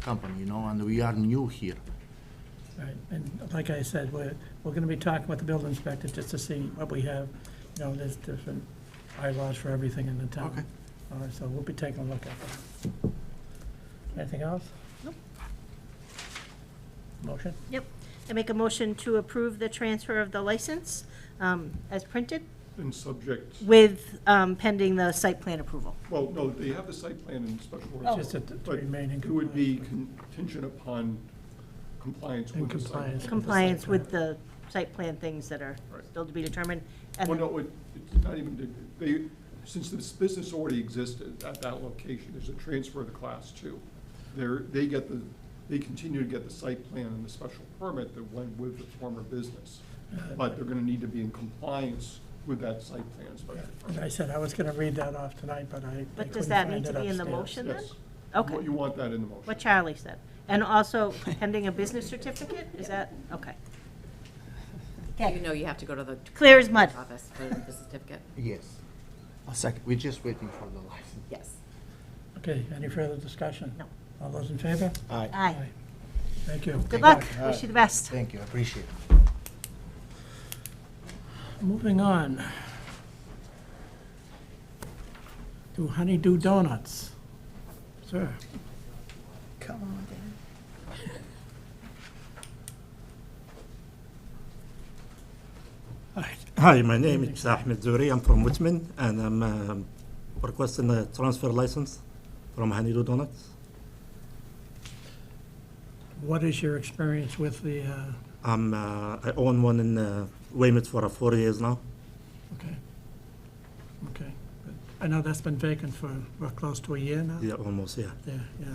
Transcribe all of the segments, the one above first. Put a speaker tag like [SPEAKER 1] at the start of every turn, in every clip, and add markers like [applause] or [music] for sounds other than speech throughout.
[SPEAKER 1] company, you know, and we are new here.
[SPEAKER 2] Right, and like I said, we're, we're gonna be talking with the building inspector just to see what we have. You know, there's different bylaws for everything in the town.
[SPEAKER 1] Okay.
[SPEAKER 2] All right, so we'll be taking a look at that. Anything else?
[SPEAKER 3] Nope.
[SPEAKER 2] Motion?
[SPEAKER 3] Yep. I make a motion to approve the transfer of the license um, as printed
[SPEAKER 4] And subject,
[SPEAKER 3] with um, pending the site plan approval.
[SPEAKER 4] well, no, they have the site plan and special
[SPEAKER 3] Oh.
[SPEAKER 4] orders.
[SPEAKER 2] Just to to
[SPEAKER 4] But
[SPEAKER 2] remain in compliance.
[SPEAKER 4] it would be contingent upon compliance
[SPEAKER 2] In
[SPEAKER 4] with the site. plan.
[SPEAKER 2] compliance.
[SPEAKER 3] Compliance with the site plan things that are
[SPEAKER 4] Right.
[SPEAKER 3] still to be determined.
[SPEAKER 4] Well,
[SPEAKER 3] And
[SPEAKER 4] no, it- it's not even, they, since this business already existed at that location, there's a transfer of the class two. They're, they get the, they continue to get the site plan and the special permit that went with the former business. But they're gonna need to be in compliance with that site plan and special
[SPEAKER 2] And
[SPEAKER 4] permit.
[SPEAKER 2] I said I was gonna read that off tonight, but I. I
[SPEAKER 3] But does
[SPEAKER 2] couldn't
[SPEAKER 3] that
[SPEAKER 2] find
[SPEAKER 3] need to
[SPEAKER 2] it
[SPEAKER 3] be in the
[SPEAKER 2] upstairs.
[SPEAKER 3] motion then?
[SPEAKER 4] Yes.
[SPEAKER 3] Okay.
[SPEAKER 4] Well, You want that in the motion.
[SPEAKER 3] What Charlie said. And also pending a business certificate? Is that, okay.
[SPEAKER 5] You know you have to go to the
[SPEAKER 3] Clear as mud.
[SPEAKER 5] office for the certificate.
[SPEAKER 1] Yes. A second. We're just waiting for the license.
[SPEAKER 5] Yes.
[SPEAKER 2] Okay, any further discussion?
[SPEAKER 3] No.
[SPEAKER 2] All those in favor?
[SPEAKER 1] Aye.
[SPEAKER 3] Aye.
[SPEAKER 2] Thank you.
[SPEAKER 3] Good luck. Wish you the best.
[SPEAKER 1] Thank you, I appreciate it.
[SPEAKER 2] Moving on. To Honeydew Donuts. Sir,
[SPEAKER 6] Come on down.
[SPEAKER 2] [laughs]
[SPEAKER 7] Hi- Hi, my name is Ahmed Zuri. I'm from Whitman, and I'm um, requesting a transfer license from Hanidu Donuts.
[SPEAKER 2] what is your experience with the, uh,
[SPEAKER 7] I'm, uh, I own one in uh, Weymouth for uh, four years now.
[SPEAKER 2] okay. Okay. But I know that's been vacant for, what, close to a year now?
[SPEAKER 7] Yeah, almost, yeah.
[SPEAKER 2] Yeah, yeah.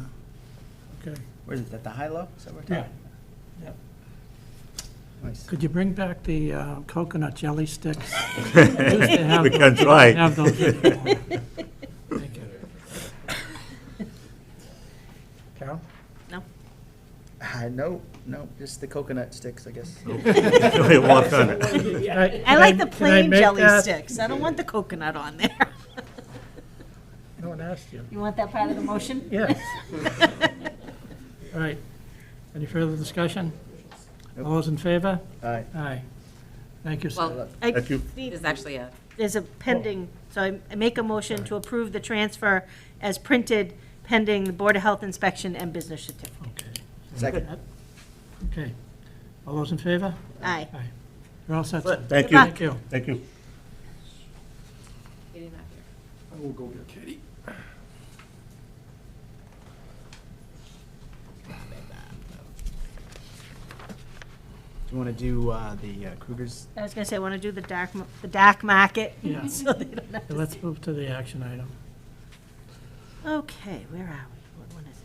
[SPEAKER 2] Okay.
[SPEAKER 6] Where is it, at the high low? Is that what we're
[SPEAKER 2] Yeah.
[SPEAKER 6] talking?
[SPEAKER 2] Yeah.
[SPEAKER 6] Nice.
[SPEAKER 2] Could you bring back the uh, coconut jelly sticks? We used to have
[SPEAKER 7] [laughs] We
[SPEAKER 2] them.
[SPEAKER 7] can try.
[SPEAKER 2] Have those anymore. Thank you. Carol?
[SPEAKER 6] Ah, no, no, just the coconut sticks, I guess.
[SPEAKER 7] We work on it.
[SPEAKER 3] [laughs] I like the plain jelly sticks. I don't want the coconut on there. [laughs]
[SPEAKER 2] No one asked you.
[SPEAKER 3] You want that part of the motion? [laughs]
[SPEAKER 2] Yes. All right. Any further discussion? All those in favor?
[SPEAKER 6] All right,
[SPEAKER 2] Aye. Thank you, sir.
[SPEAKER 5] Well,
[SPEAKER 3] I
[SPEAKER 7] Thank you.
[SPEAKER 3] need-
[SPEAKER 5] there's actually a,
[SPEAKER 3] There's a pending, so I- I make a motion to approve the transfer as printed pending the Board of Health inspection and business certificate.
[SPEAKER 2] Okay.
[SPEAKER 6] second.
[SPEAKER 2] Okay. All those in favor?
[SPEAKER 3] Aye.
[SPEAKER 2] Aye. You're all set, sir.
[SPEAKER 7] Thank you.
[SPEAKER 2] Thank you.
[SPEAKER 7] Thank you.
[SPEAKER 5] he didn't have here.
[SPEAKER 4] I will go get Katie.
[SPEAKER 6] Do you want to do uh, the uh, Kruger's?
[SPEAKER 3] I was gonna say, I want to do the dark, m- the dark market.
[SPEAKER 2] Yeah.
[SPEAKER 3] [laughs] so they don't have
[SPEAKER 2] So
[SPEAKER 3] to
[SPEAKER 2] Let's
[SPEAKER 3] see.
[SPEAKER 2] move to the action item.
[SPEAKER 3] Okay, where are we? What one is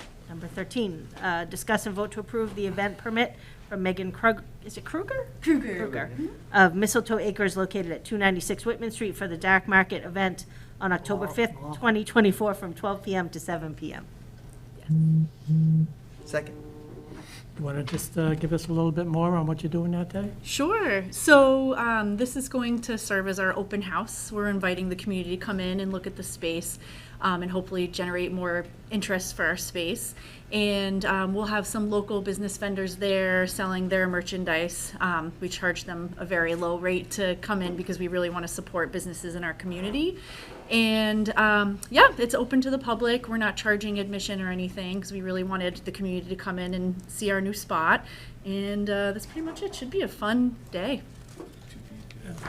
[SPEAKER 3] it? Number 13, uh, discuss and vote to approve the event permit for Megan Krug, is it Kruger? Kruger. Mm-hmm. Kruger, of Mistletoe Acres located at 296 Whitman Street for the dark market event on October 5th, 2024, from 12 PM to 7 PM.
[SPEAKER 6] Second.
[SPEAKER 2] You want to just uh, give us a little bit more on what you're doing that day?
[SPEAKER 8] Sure. So um, this is going to serve as our open house. We're inviting the community to come in and look at the space um, and hopefully generate more interest for our space. And um, we'll have some local business vendors there selling their merchandise. Um, we charge them a very low rate to come in because we really want to support businesses in our community. And um, yeah, it's open to the public. We're not charging admission or anything because we really wanted the community to come in and see our new spot. And uh, that's pretty much it. Should be a fun day.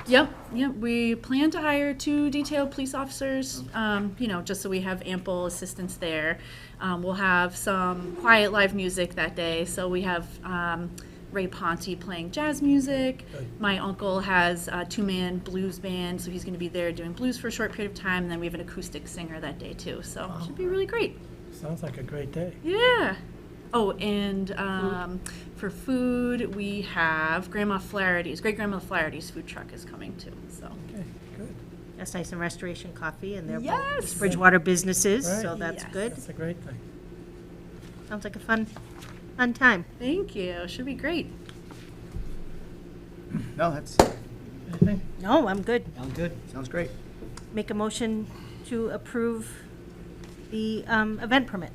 [SPEAKER 8] Yep, yep. We plan to hire two detailed police officers, um, you know, just so we have ample assistance there. Um, we'll have some quiet live music that day. So we have um, Ray Ponte playing jazz music. My uncle has a two man blues band, so he's going to be there doing blues for a short period of time. And then we have an acoustic singer that day, too. So it should be really great.
[SPEAKER 2] Sounds like a great day.
[SPEAKER 8] Yeah. Oh, and um, for food, we have Grandma Flaherty's, Great Grandma Flaherty's food truck is coming too. So
[SPEAKER 2] Okay, good.
[SPEAKER 3] That's nice, and Restoration Coffee, and they're both
[SPEAKER 8] Yes.
[SPEAKER 3] Bridgewater businesses, so
[SPEAKER 2] Right.
[SPEAKER 3] that's
[SPEAKER 8] Yes.
[SPEAKER 3] good.
[SPEAKER 2] That's a great thing.
[SPEAKER 3] Sounds like a fun, fun time.
[SPEAKER 8] thank you. Should be great.
[SPEAKER 6] No, that's,
[SPEAKER 2] Anything?
[SPEAKER 3] No, I'm good.
[SPEAKER 6] sounds good. Sounds great.
[SPEAKER 3] Make a motion to approve the um, event permit.